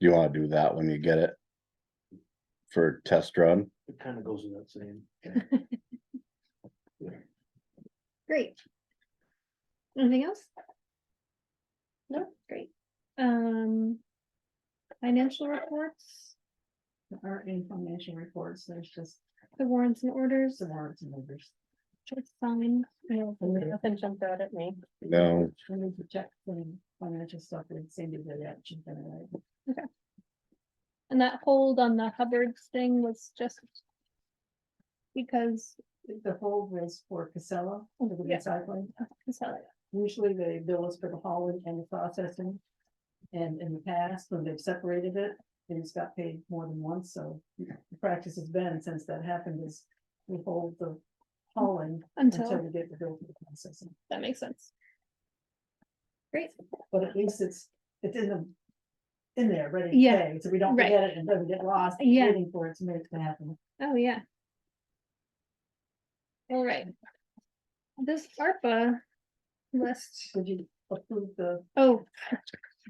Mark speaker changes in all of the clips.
Speaker 1: You wanna do that when you get it? For test run,
Speaker 2: It kind of goes without saying.
Speaker 3: Great. Anything else? No, great. Um. Financial reports,
Speaker 4: There aren't any financial reports, there's just
Speaker 3: the warrants and orders,
Speaker 4: some warrants and numbers.
Speaker 3: it's fine.
Speaker 5: Nothing jumped out at me.
Speaker 1: no,
Speaker 4: We need to check some financial stuff and Cindy did that, she's gonna write.
Speaker 3: And that hold on the Hubbard's thing was just. Because,
Speaker 4: The whole was for Casella, under the
Speaker 3: Yeah.
Speaker 4: recycling.
Speaker 3: sorry,
Speaker 4: Usually they bill us for the hauling and the processing. And in the past, when they've separated it, they just got paid more than once, so the practice has been since that happened is we hold the hauling until
Speaker 3: until,
Speaker 4: we get the bill for the processing.
Speaker 3: that makes sense. Great,
Speaker 4: But at least it's, it's in the, in there, ready to
Speaker 3: Yeah,
Speaker 4: pay, so we don't
Speaker 3: right.
Speaker 4: forget it and doesn't get lost.
Speaker 3: Yeah.
Speaker 4: Waiting for it to make it happen.
Speaker 3: oh, yeah. All right. This ARPA list,
Speaker 4: Would you approve the,
Speaker 3: oh,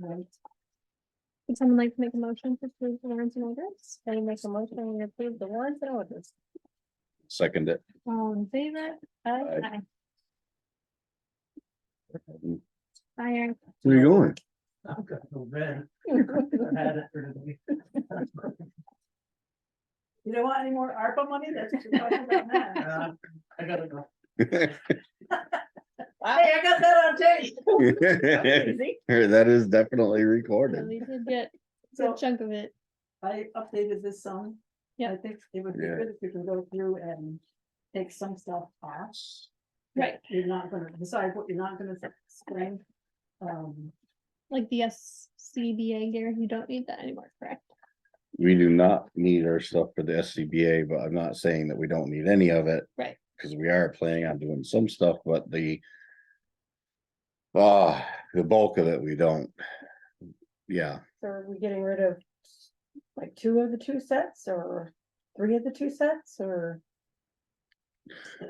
Speaker 4: um,
Speaker 3: Would someone like to make a motion to approve the warrants and orders?
Speaker 5: I make a motion to approve the warrants and orders.
Speaker 1: second it.
Speaker 3: All in favor?
Speaker 5: Aye.
Speaker 1: Aye.
Speaker 3: Aye, aye.
Speaker 1: Where you going?
Speaker 2: I've got no bed. I had it for today.
Speaker 4: you don't want any more ARPA money? That's what you're talking about now.
Speaker 2: Uh, I gotta go.
Speaker 4: Hey, I got that on tape.
Speaker 5: Easy.
Speaker 1: That is definitely recorded.
Speaker 3: Really did get a
Speaker 4: So
Speaker 3: good chunk of it.
Speaker 4: I updated this song.
Speaker 3: Yeah.
Speaker 4: I think it would be
Speaker 1: Yeah.
Speaker 4: good if we can go through and take some stuff off. that
Speaker 3: Right.
Speaker 4: You're not gonna decide what you're not gonna spend. Um,
Speaker 3: Like the SCBA gear, you don't need that anymore, correct?
Speaker 1: We do not need our stuff for the SCBA, but I'm not saying that we don't need any of it.
Speaker 3: Right.
Speaker 1: Cause we are planning on doing some stuff, but the. Uh, the bulk of it, we don't. Yeah,
Speaker 5: So are we getting rid of like two of the two sets or three of the two sets or?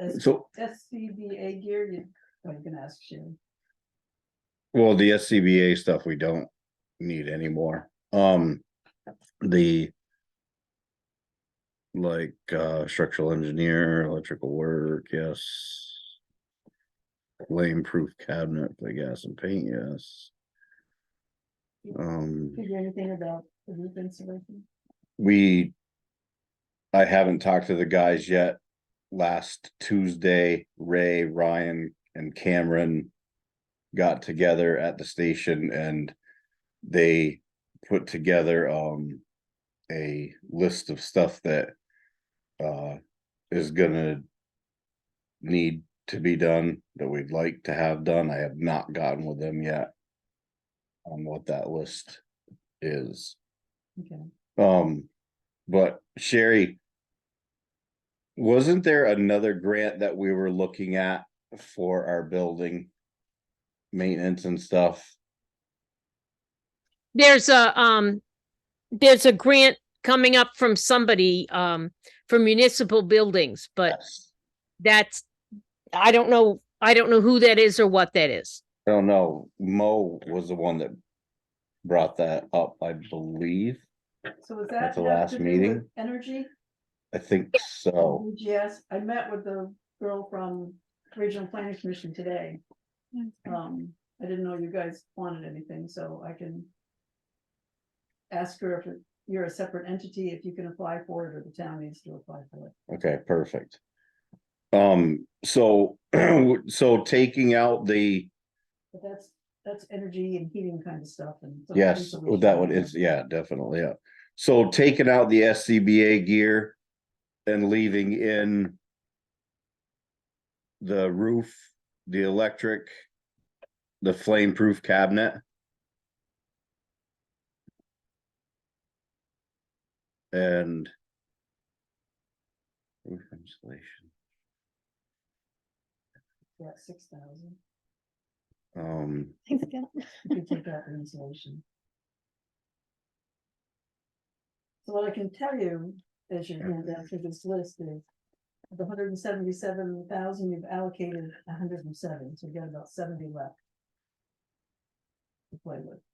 Speaker 4: S-
Speaker 1: so,
Speaker 4: SCBA gear, you, oh, you can ask Sharon.
Speaker 1: well, the SCBA stuff we don't need anymore. Um, the. Like, uh, structural engineer, electrical work, yes. Flame-proof cabinet, I guess, and paint, yes. Um.
Speaker 4: Did you hear anything about the roof insulation?
Speaker 1: we. I haven't talked to the guys yet. Last Tuesday, Ray, Ryan and Cameron. Got together at the station and they put together um. A list of stuff that. Uh, is gonna. Need to be done that we'd like to have done. I have not gotten with them yet. On what that list is.
Speaker 4: Okay.
Speaker 1: Um, but Sherry. Wasn't there another grant that we were looking at for our building? Maintenance and stuff,
Speaker 6: There's a, um, there's a grant coming up from somebody, um, for municipal buildings, but
Speaker 1: Yes.
Speaker 6: that's, I don't know, I don't know who that is or what that is.
Speaker 1: I don't know, Mo was the one that. Brought that up, I believe,
Speaker 4: So was that?
Speaker 1: At the
Speaker 4: have
Speaker 1: last
Speaker 4: to do with
Speaker 1: meeting? Oh.
Speaker 4: Energy?
Speaker 1: I think so,
Speaker 4: Yes, I met with the girl from Regional Planning Commission today.
Speaker 1: Mm.
Speaker 4: Um, I didn't know you guys wanted anything, so I can. Ask her if you're a separate entity, if you can apply for it or the town needs to apply for it.
Speaker 1: okay, perfect. Um, so, so taking out the,
Speaker 4: But that's, that's energy and heating kind of stuff and. so
Speaker 1: yes, oh,
Speaker 4: insulation
Speaker 1: that one is, yeah, definitely, yeah. So taking out the SCBA gear and leaving in the roof, the electric, the flame-proof cabinet. And roof insulation,
Speaker 4: Yeah, six thousand.
Speaker 1: um,
Speaker 3: Thanks, Gail.
Speaker 4: You can take out the insulation. So what I can tell you, as you're going down through this list is. of The hundred and seventy-seven thousand, you've allocated hundred and seven, so you've got about seventy left. To play with,